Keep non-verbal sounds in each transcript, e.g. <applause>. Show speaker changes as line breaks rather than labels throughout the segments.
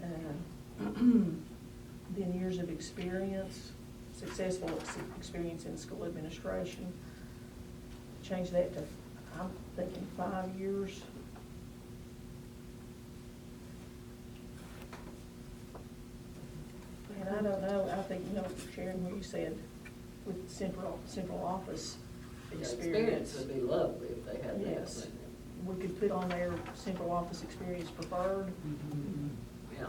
uh, <clears throat> experience, successful ex- experience in school administration. Change that to, I'm thinking five years. And I don't know, I think, you know, Sharon, what you said with central, central office
Yeah,
experience.
Would be lovely if they had that.
Yes. We could put on there central office experience preferred,
Yeah.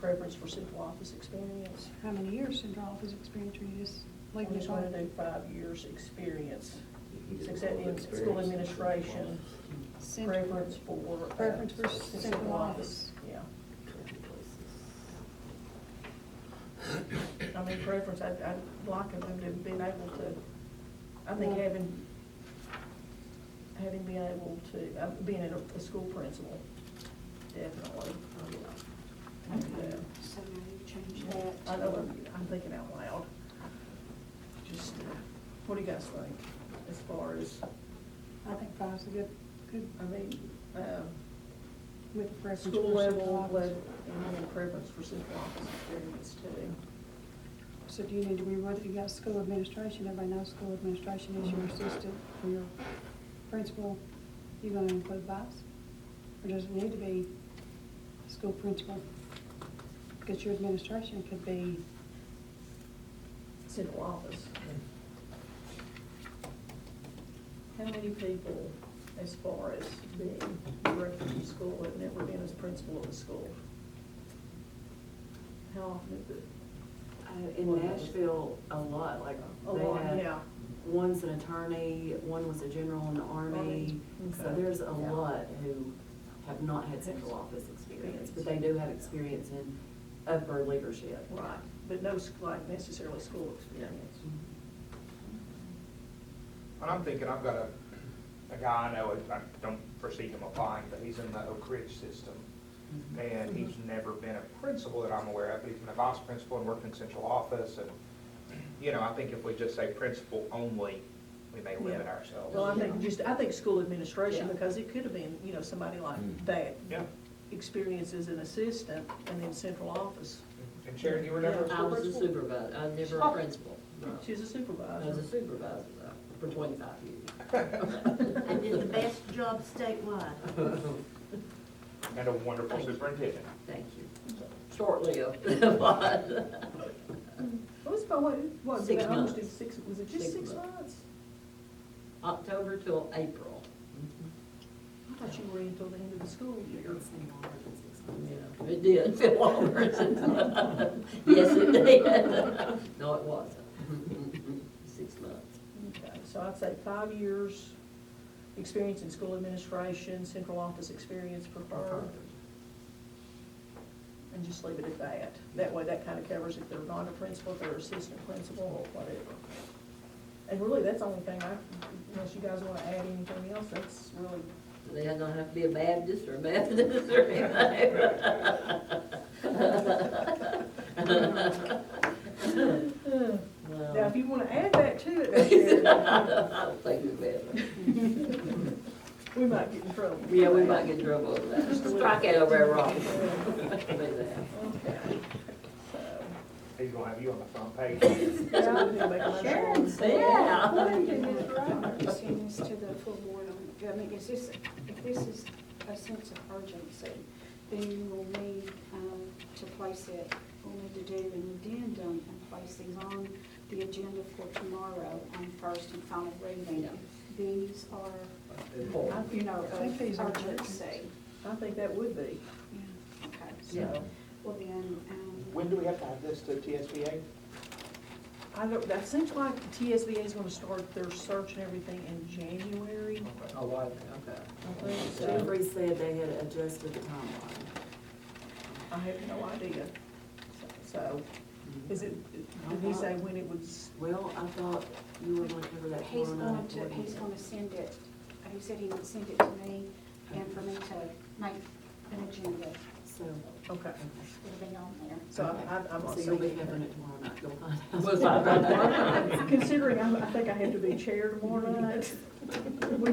preference for central office experience.
How many years central office experience are you just,
We
like,
just want to do five years' experience, success in school administration,
Cent-
preference for. uh,
Preference for central office.
Yeah, I mean, preference, I'd, I'd like them to have been able to, I think
Yeah.
having, having been able to, uh, being a, a school principal, definitely.
Oh, yeah.
And, uh,
So now you change
Yeah,
that.
I know,
to-
I'm- I'm thinking out loud. Just, uh, what do you guys think as far as,
I think five's a good, good,
I mean, um,
with a preference
school
for central
level,
office.
level, and then preference for central office experience too.
So do you need to reword it? You got school administration, everybody knows school administration is your assistant or your principal. You gonna include vice? Or does it need to be school principal? Because your administration could be,
Central office. How many people, as far as being director of the school, have never been as principal of a school? How often is it?
Uh, In Nashville, a lot, like,
A lot,
they
yeah.
had, one's an attorney, one was a general in the army.
Army,
So
okay.
there's a
Yeah.
lot who have not had central office experience, but they do have experience in upper leadership.
Right, but no, s- like necessarily school experience.
And I'm thinking, I've got a, a guy I know, I don't foresee him applying, but he's in the Oak Ridge system. And he's never been a principal that I'm aware of, but he's been a vice principal and worked in central office. And, you know, I think if we just say principal only, we may limit
Yeah.
ourselves.
Well, I think just, I think school administration,
Yeah.
because it could have been, you know, somebody like
Mm.
that.
Yeah.
Experience as an assistant and then central office.
And Sharon, you were never a
I
school
was a
principal?
supervisor, I was never a
Oh.
principal. no.
She's a
I was
supervisor.
a supervisor though, for twenty-five years.
I did the best job statewide.
And a wonderful superintendent.
Thank you. <laughs> Short-lived, but,
What was my, what, what, did
Six
I almost do
months.
six, was it just
Six
six
months.
months?
October till April,
I thought you were in until the end of the school year.
you know, it <laughs> did feel longer. Yes, it did. No, it wasn't. Six months.
Okay, so I'd say five years, experience in school administration, central office experience preferred, and just leave it at that. That way, that kind of covers if they're not a principal, if they're assistant principal, or whatever. And really, that's the only thing I, unless you guys want to add anything else, that's really,
They don't have to be a Baptist or Methodist or anything.
now,
No,
if you want to add that to it, that's
<laughs>
your-
I don't think we better.
we might get in trouble.
Yeah, we might get in trouble over that. Strike out over wrong. But
Okay, so.
He's gonna have you on the front page.
That's what we do, make a motion.
Sharon
Yeah.
said.
According to Ms. Roberts, send this to the full board, on- I mean, is this, if this is a sense of urgency, then you will need um, to place it, we'll need to do an addendum and place these on the agenda for tomorrow on first and final reading.
Yeah.
These are,
Important.
you know,
I think these are
of urgency.
urgent.
I think that would be,
Yeah, Okay,
Yeah.
so, well then, um,
When do we have to have this to TSBA?
I don't, that seems like the TSBA is gonna start their search and everything in January.
Oh, wow, okay.
I think so.
Jeffrey said they had adjusted the timeline.
I have no idea. So, is it, did he say when it was,
Well, I thought you were gonna cover that
he's
tomorrow
going
night.
to, he's going to send it, uh, he said he would send it to me and for me to make an agenda,
So,
okay,
it'll be on there.
so I- I- I'm
so
not
you'll be
saying. <laughs>
covering it tomorrow night, you'll find out.
We'll find out.
Considering I'm- I think I have to be chair tomorrow night, we